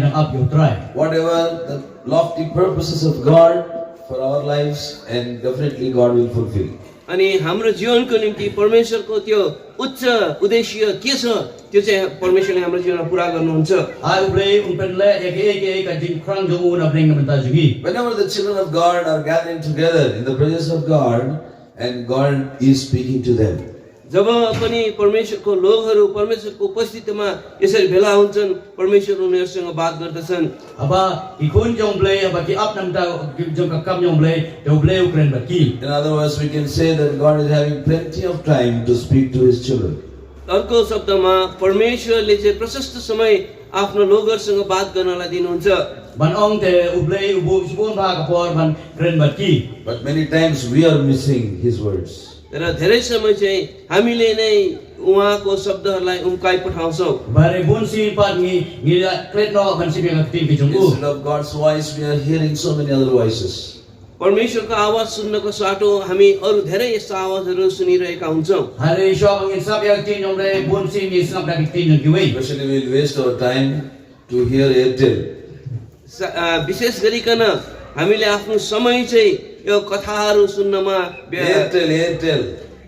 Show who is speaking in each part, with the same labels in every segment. Speaker 1: ng Abyo Tribe.
Speaker 2: whatever the lofty purposes of God for our lives, and definitely God will fulfill.
Speaker 3: अनि हाम्रो जीवनको निम्ति परमेश्वरको त्यो उच्च उद्देश्य के छ त्यो चाहिँ परमेश्वरले हाम्रो जीवनमा पुरा गर्नुहुन्छ
Speaker 1: Ay ubre umpenle eke eke eke jing krang oh, jong un abring menta jugi.
Speaker 2: Whenever the children of God are gathering together in the presence of God, and God is speaking to them.
Speaker 3: जब पनि परमेश्वरको लोकहरू परमेश्वरको उपस्थितिमा यसरी भेला हुन्छन् परमेश्वर उनीहरूसँग बात गर्दछन्
Speaker 1: Aba ikun jong ble aba ki up nam ta jong kakam jong ble jong ble ukren ba ki.
Speaker 2: In other words, we can say that God is having plenty of time to speak to His children.
Speaker 3: अर्को शब्दमा परमेश्वरले चाहिँ प्रशस्त समय आफ्नो लोकहरूसँग बात गर्नलाई दिनुहुन्छ
Speaker 1: Ban ong te oh, uble ubu subun ba kapor ban kren ba ki.
Speaker 2: But many times we are missing His words.
Speaker 3: र धेरै समय चाहिँ हामीले नै उहाँको शब्दहरूलाई उम्काइ पठाउँछौँ
Speaker 1: Bare bun si pat ngi ngi la kret no ban si pia kakti ki jong u.
Speaker 2: Instead of God's voice, we are hearing so many other voices.
Speaker 3: परमेश्वरको आवाज सुन्नको साटो हामी अरू धेरै यस्ता आवाजहरू सुनिरहेका हुन्छौँ
Speaker 1: Hari shok ngi sap ya kakti jong ble bun si ngi sap da kakti jong ki wei.
Speaker 2: Especially, we'll waste our time to hear Airtel.
Speaker 3: स- अ, विशेष गरिकन हामीले आफ्नो समय चाहिँ यो कथाहरू सुन्नमा
Speaker 2: Airtel,
Speaker 3: व्य-
Speaker 2: Airtel,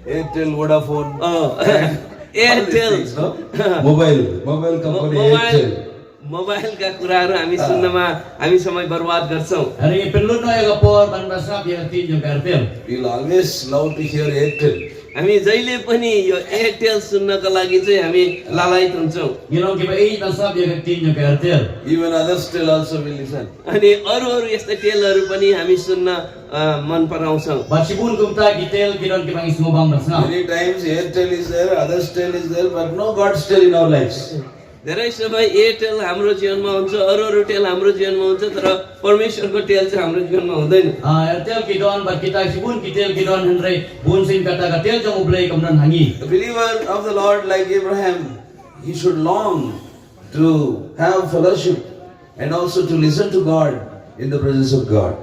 Speaker 2: Airtel, Vodafone.
Speaker 3: A, Airtel
Speaker 2: All these things, no? Mobile, mobile company
Speaker 3: mobile
Speaker 2: Airtel.
Speaker 3: मोबाइलका कुराहरू हामी सुन्नमा हामी समय बर्बाद गर्छौँ
Speaker 1: Hari penlut no ya kapor ban ba sap ya kakti jong kartel.
Speaker 2: We'll always love to hear Airtel.
Speaker 3: हामी जहिले पनि यो एयरटेल सुन्नको लागि चाहिँ हामी लालायत हुन्छौँ
Speaker 1: Ngilong ki ba i ban sap ya kakti jong kartel.
Speaker 2: Even others still also will listen.
Speaker 3: अनि अरू अरू यस्ता टेलहरू पनि हामी सुन्न अ, मन पराउँछौँ
Speaker 1: Basibun kumta kitel kiron ki pangis ngobang basna.
Speaker 2: Many times Airtel is there, others still is there, but no God still in our lives.
Speaker 3: धेरै समय एयरटेल हाम्रो जीवनमा हुन्छ अरू अरू टेल हाम्रो जीवनमा हुन्छ तर परमेश्वरको टेल चाहिँ हाम्रो जीवनमा हुँदैन
Speaker 1: Ah, ertel kidon bat kita sibun kitel kidon henry bun sin kata katel jong ublay kamdan hangi.
Speaker 2: The believer of the Lord, like Abraham, he should long to have fellowship and also to listen to God in the presence of God.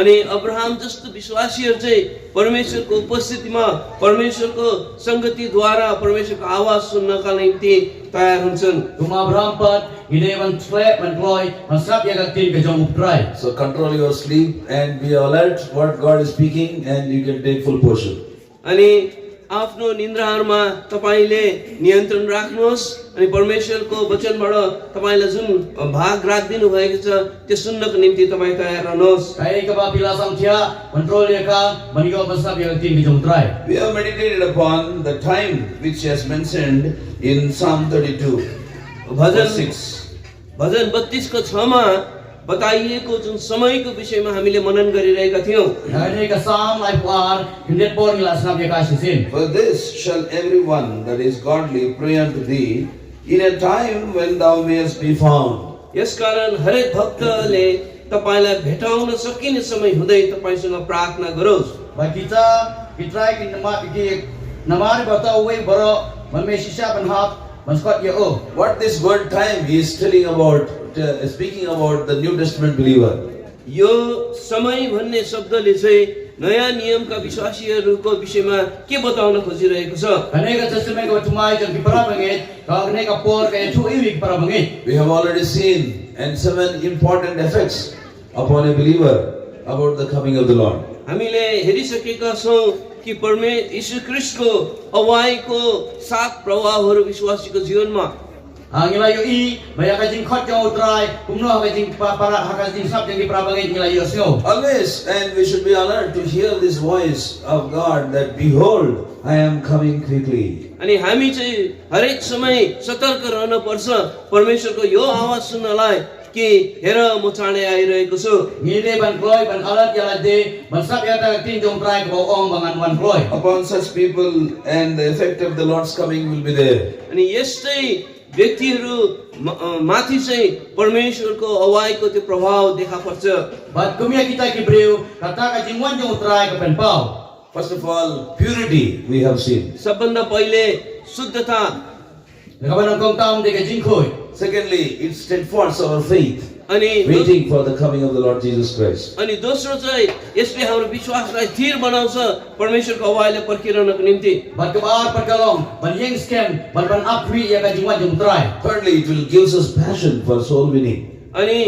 Speaker 3: अनि Abraham जस्तो विश्वासीहरू चाहिँ परमेश्वरको उपस्थितिमा परमेश्वरको सङ्गतिद्वारा परमेश्वरको आवाज सुन्नका निम्ति तयार हुन्छन्
Speaker 1: Kuma berampat ide ban slep ban kloy masap ya katin ke jong uptrai.
Speaker 2: So control your sleep and be alert what God is speaking, and you can take full portion.
Speaker 3: अनि आफ्नो निन्द्राहरूमा तपाईँले नियन्त्रण राख्नुहोस् अनि परमेश्वरको वचनबाट तपाईँलाई जुन भाग रात दिनुभएको छ त्यो सुन्नको निम्ति तपाईँ तयार रहनुहोस्
Speaker 1: Kai ka ba pila sang tia kontrol ya ka ban yo masap ya katin ke jong uptrai.
Speaker 2: We have meditated upon the time which is mentioned in Psalm 32,
Speaker 3: bhajan
Speaker 2: verse 6.
Speaker 3: भजन बत्तिसको छमा बताइएको जुन समयको विषयमा हामीले मनन गरिरहेका थियौँ
Speaker 1: Hari ka sam lai puar hindet por ngila snap ya ka sisin.
Speaker 2: For this shall everyone that is godly pray unto thee in a time when thou mayest be found.
Speaker 3: यसकारण हरेक भक्तले तपाईँलाई भेटाउन सकिने समय हुँदै तपाईँसँग प्रार्थना गरोस्
Speaker 1: Ba kita kitrai ki nama ki namar bata uwe baro ban me shisha ban hap ban skot ya oh.
Speaker 2: What this word time is telling about, uh, speaking about the New Testament believer.
Speaker 3: यो समय भन्ने शब्दले चाहिँ नयाँ नियमका विश्वासीहरूको विषयमा के बताउन खोजिरहेको छ
Speaker 1: Kaneka testament ko tumai jang kipara bangit, ka kaneka por kaya chu iwi kipara bangit.
Speaker 2: We have already seen and seven important effects upon a believer about the coming of the Lord.
Speaker 3: हामीले हेरिसकेका छौँ कि परमे यीशु क्रिस्टको अवाईको सात प्रभावहरू विश्वासीको जीवनमा
Speaker 1: Ang ngila Ha, yo i, baya ka jing khot jang utrai, kumno ha ka jing pa- para ha ka jing sap jang kipara bangit ngila yo snow.
Speaker 2: Always, and we should be alert to hear this voice of God that, Behold, I am coming quickly.
Speaker 3: अनि हामी चाहिँ हरेक समय सतर्क रहन पर्छ परमेश्वरको यो आवाज सुन्नलाई कि हेर म चाँडै आइरहेको छु
Speaker 1: Ngile ban kloy ban alat ya de, ban sap ya ta tin jong trai ko ong bangan wan kloy.
Speaker 2: Upon such people, and the effect of the Lord's coming will be there.
Speaker 3: अनि यस्तै व्यक्तिहरू म- a, माथि चाहिँ परमेश्वरको अवाईको त्यो प्रभाव देखा पर्छ
Speaker 1: Bat kumya kita kibreu, kata ka jing wan jang utrai ka pen pau.
Speaker 2: First of all, purity we have seen.
Speaker 3: सबभन्दा पहिले शुद्धता
Speaker 1: Nakaban ang kong tam de ka jing koy.
Speaker 2: Secondly, it steadfast our faith,
Speaker 3: अनि दो-
Speaker 2: waiting for the coming of the Lord Jesus Christ.
Speaker 3: अनि दोस्रो चाहिँ यसले हाम्रो विश्वासलाई थिर बनाउँछ परमेश्वरको अवाईलाई पर्खिरहनको निम्ति
Speaker 1: Bat kabar perkalong, ban yeng scam, ban ban apwi ya ka jing wan jang utrai.
Speaker 2: Thirdly, it will gives us passion for soul winning.
Speaker 3: अनि